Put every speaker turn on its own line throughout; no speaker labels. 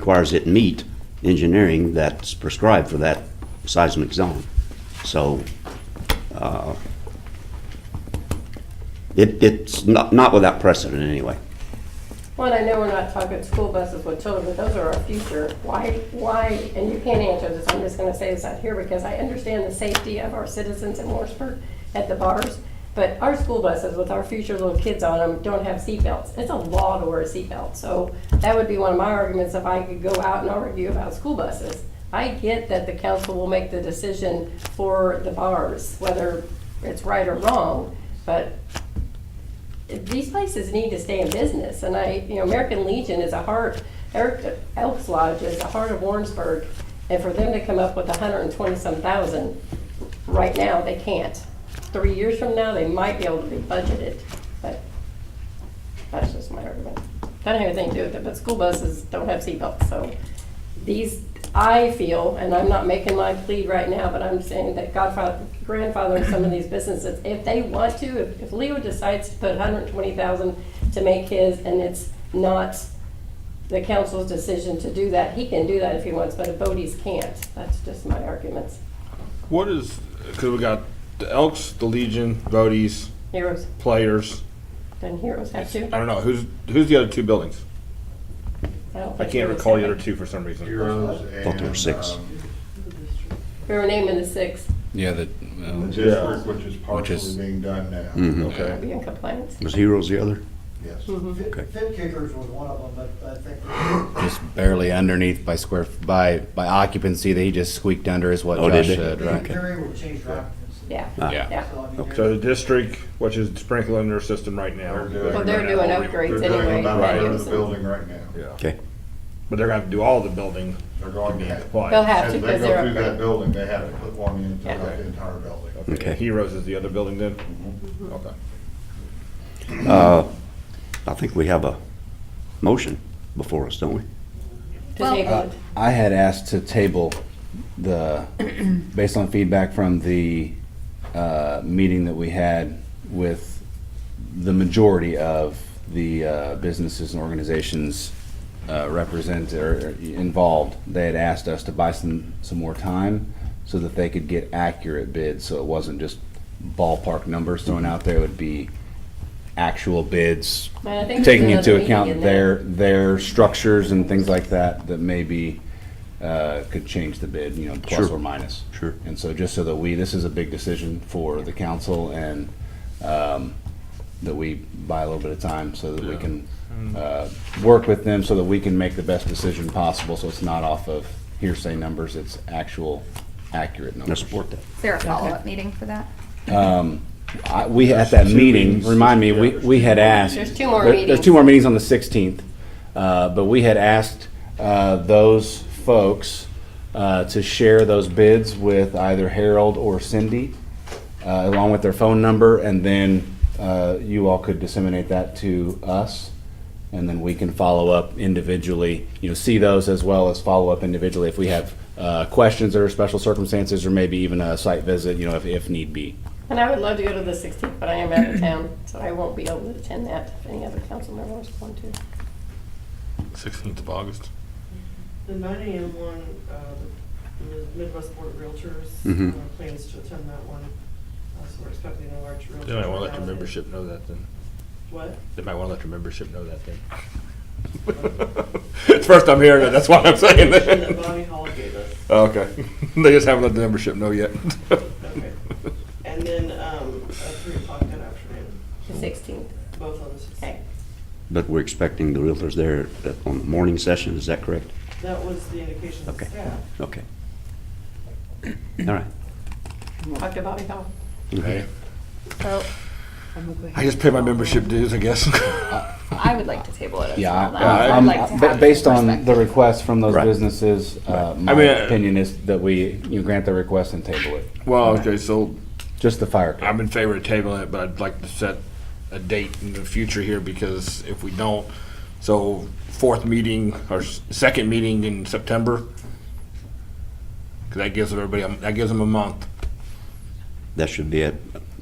requires it meet engineering that's prescribed for that seismic zone. So, uh, it, it's not, not without precedent anyway.
Well, I know we're not talking school buses with children, but those are our future. Why, why, and you can't answer this, I'm just gonna say this out here because I understand the safety of our citizens in Morrisburg at the bars, but our school buses with our future little kids on them don't have seatbelts. It's a law to wear a seatbelt, so that would be one of my arguments if I could go out and argue about school buses. I get that the council will make the decision for the bars, whether it's right or wrong, but these places need to stay in business, and I, you know, American Legion is a heart, Eric Elks Lodge is the heart of Warrensburg, and for them to come up with a hundred and twenty-some thousand, right now, they can't. Three years from now, they might be able to be budgeted, but that's just my argument. That don't have anything to do with it, but school buses don't have seatbelts, so these, I feel, and I'm not making my plea right now, but I'm saying that godfather, grandfathering some of these businesses, if they want to, if- if Leo decides to put hundred and twenty thousand to make his, and it's not the council's decision to do that, he can do that if he wants, but if Bodie's can't, that's just my arguments.
What is because we got the Elks, the Legion, Voties,
Heroes,
players.
then heroes have to.
I don't know who's who's the other two buildings.
don't
I
think
can't
Heroes
recall the
have
other
it.
two for some reason.
Heroes
Thought there were
and,
six.
um,
We were naming the six,
Yeah, that,
The
well,
district, which is
Which is-
partially being done now.
Are
Okay.
we in compliance.
Was Heroes the other?
Yes.
Okay.
Fit fit kickers was one of them, but I think
just barely underneath by square, by, by occupancy that he just squeaked under is what
Oh, did they?
Josh said,
the
right?
interior would change occupancy.
Yeah,
Uh,
Ah.
Yeah.
yeah.
So, I mean,
So the district, which is sprinkling their system right now.
They're doing-
Well, they're doing
They're
upgrades
doing
anyway.
about
Right.
a third of the building right now.
Yeah.
Okay.
But they're gonna have to do all the building
They're
to
going to
be
have.
compliant.
They'll have
As
to
they
because
go
they're
through that
upgrading.
building, they have to put one in
Yeah.
throughout the entire building.
Okay.
Heroes is the other building then. Okay.
Uh, I think we have a motion before us, don't we?
To table it.
I had asked to table the, based on feedback from the, uh, meeting that we had with the majority of the, uh, businesses and organizations, uh, represented or involved. They had asked us to buy some, some more time so that they could get accurate bids, so it wasn't just ballpark numbers thrown out there. It would be actual bids,
And I think there's
taking
another
into
meeting
account
in there.
their, their structures and things like that, that maybe, uh, could change the bid, you know, plus
Sure.
or minus.
Sure.
And so just so that we, this is a big decision for the council and, um, that we buy a little bit of time so that we can,
Mm.
uh, work with them so that we can make the best decision possible, so it's not off of hearsay numbers, it's actual accurate
I
numbers.
support that.
Is there a follow-up meeting for that?
I, we, at that
There's two
meeting,
meetings.
remind me, we, we had asked.
There's two more
there- There's
meetings.
two more meetings on the sixteenth, uh, but we had asked, uh, those folks, uh, to share those bids with either Harold or Cindy, uh, along with their phone number, and then, uh, you all could disseminate that to us. And then we can follow up individually, you know, see those as well as follow up individually if we have, uh, questions or special circumstances, or maybe even a site visit, you know, if, if need be.
And I would love to go to the 16th, but I am out of town, so I won't be able to attend that if any other council members want to.
Sixteenth of August.
The nine AM one, uh, the Midwest Board of Realtors
Mhm.
uh, plans to attend that one, Uh, so we're expecting a large realtor.
They might want to let your
turnout.
membership know that then.
What?
They might want to let your membership know that then. it's first I'm hearing it. That's why I'm saying
Information That Bonnie
that.
Hall gave us.
Okay. they just haven't let the membership know yet.
Okay. And then um, at three o'clock that afternoon,
The 16th,
both on the
okay.
sixteenth.
But we're expecting the realtors there at- on the morning session, is that correct?
That was the indication of
Okay.
staff.
Okay. All right.
Talk to Bobby Hall.
Hey,
So
I just pay my membership dues, I guess.
I would like to table it as
Yeah,
well.
I-
I
I-
would
I'm,
like to
ba-
have
based
some
on the
perspective.
request from those
Right.
businesses, uh, my
mean, uh,
opinion is that we, you grant the request and table it,
well, okay, so
just the fire. code.
I'm in favor of tabling it, but I'd like to set a date in the future here because if we don't, so fourth meeting or s- second meeting in September, 'cause that gives everybody, a- that gives them a month.
That should be it,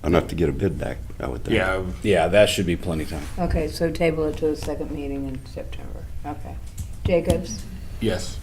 enough to get a bid back, I would think.
Yeah,
Yeah, that should be plenty of time.
Okay, so table it to the second meeting in September. Okay. Jacobs?
Yes.